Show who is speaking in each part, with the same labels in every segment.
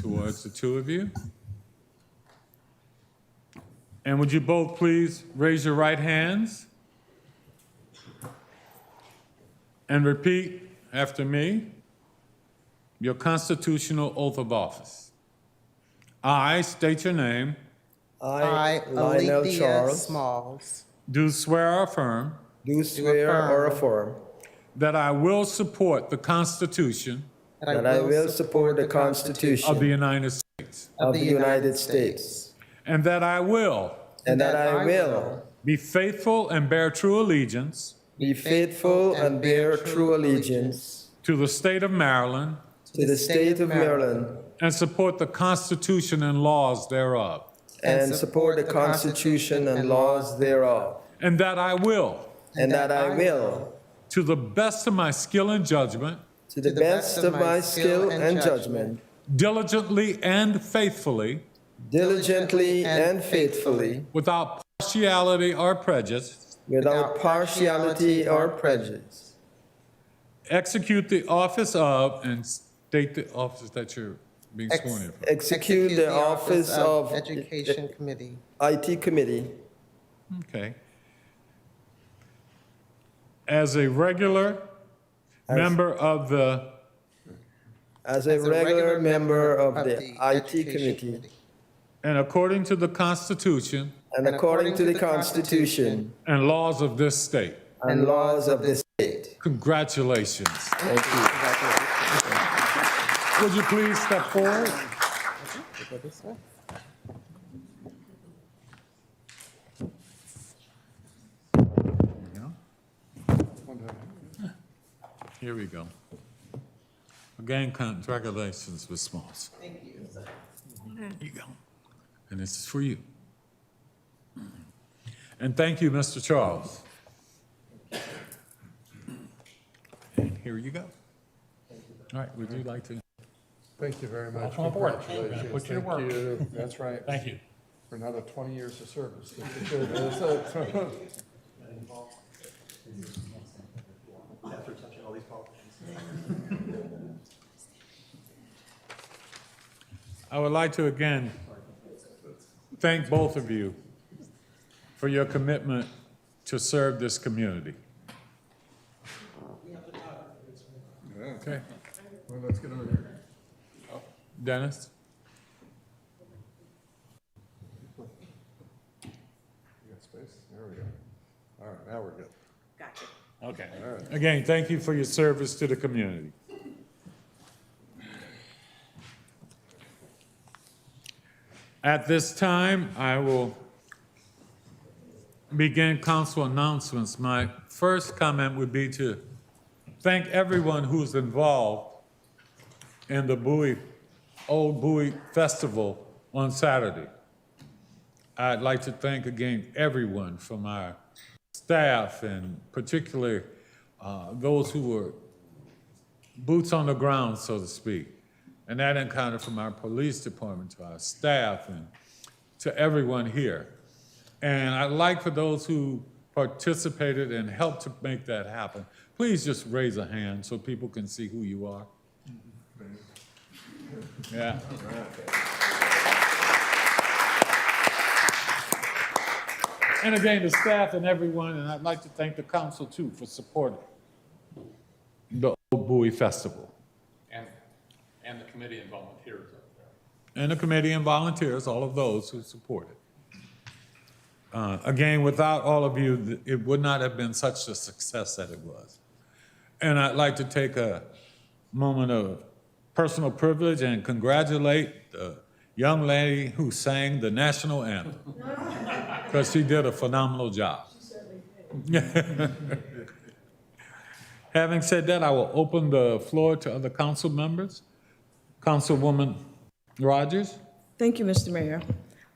Speaker 1: towards the two of you. And would you both please raise your right hands and repeat after me your constitutional oath of office? I state your name,
Speaker 2: I,
Speaker 3: Lionel
Speaker 2: Alethea
Speaker 3: Charles,
Speaker 2: Smalls,
Speaker 1: do swear or affirm
Speaker 3: do swear or affirm
Speaker 1: that I will support the Constitution
Speaker 3: that I will support the Constitution
Speaker 1: of the United States
Speaker 3: of the United States,
Speaker 1: and that I will
Speaker 3: and that I will
Speaker 1: be faithful and bear true allegiance
Speaker 3: be faithful and bear true allegiance
Speaker 1: to the state of Maryland
Speaker 3: to the state of Maryland,
Speaker 1: and support the Constitution and laws thereof,
Speaker 3: and support the Constitution and laws thereof,
Speaker 1: and that I will,
Speaker 3: and that I will,
Speaker 1: to the best of my skill and judgment,
Speaker 3: to the best of my skill and judgment,
Speaker 1: diligently and faithfully,
Speaker 3: diligently and faithfully,
Speaker 1: without partiality or prejudice,
Speaker 3: without partiality or prejudice,
Speaker 1: execute the office of and state the office that you're being
Speaker 2: Ex-
Speaker 1: sworn in for.
Speaker 3: execute the office of
Speaker 2: Education Committee.
Speaker 3: IT Committee
Speaker 1: Okay. As a regular member of the
Speaker 3: As a
Speaker 2: as
Speaker 3: regular member of the IT Committee
Speaker 1: and according to the Constitution
Speaker 3: and according to the Constitution
Speaker 1: and laws of this state.
Speaker 3: and laws of the state.
Speaker 1: Congratulations.
Speaker 3: Thank you.
Speaker 1: Would you please step forward? Here we go. Again, congratulations, Ms. Smalls. Thank you. Here you go. And this is for you. And thank you, Mr. Charles. And here you go. All right, would you like to?
Speaker 4: Thank you very much.
Speaker 5: Welcome aboard.
Speaker 4: Congratulations.
Speaker 5: Put you to work.
Speaker 4: Thank you. That's right.
Speaker 5: Thank you.
Speaker 4: For another 20 years of service. That's it.
Speaker 1: I would like to again thank both of you for your commitment to serve this community. Okay,
Speaker 4: Well, let's get over here.
Speaker 1: Dennis?
Speaker 4: You got space? There we go. All right, now we're good.
Speaker 5: Okay.
Speaker 1: Again, thank you for your service to the community. At this time, I will begin council announcements. My first comment would be to thank everyone who's involved in the Bowie, Old Bowie Festival on Saturday. I'd like to thank again everyone from our staff and particularly uh, those who were boots on the ground, so to speak. And that encountered from our police department to our staff and to everyone here. And I'd like for those who participated and helped to make that happen, please just raise a hand so people can see who you are. Yeah. And again, the staff and everyone, and I'd like to thank the council too for supporting the Old Bowie Festival.
Speaker 5: And, and the committee and volunteers up there.
Speaker 1: And the committee and volunteers, all of those who support it. Uh, Again, without all of you, th- it would not have been such a success that it was. And I'd like to take a moment of personal privilege and congratulate the young lady who sang the national anthem. Because she did a phenomenal job. Having said that, I will open the floor to other council members. Councilwoman Rogers?
Speaker 6: Thank you, Mr. Mayor.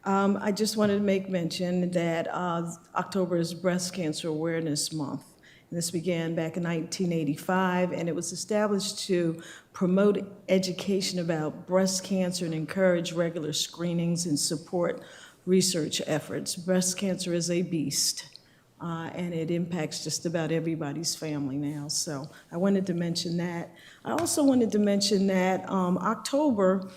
Speaker 6: Um, I just wanted to make mention that uh, October is Breast Cancer Awareness Month. And This began back in 1985, and it was established to promote education about breast cancer and encourage regular screenings and support research efforts. Breast cancer is a beast, uh, and it impacts just about everybody's family now. So I wanted to mention that. I also wanted to mention that um, October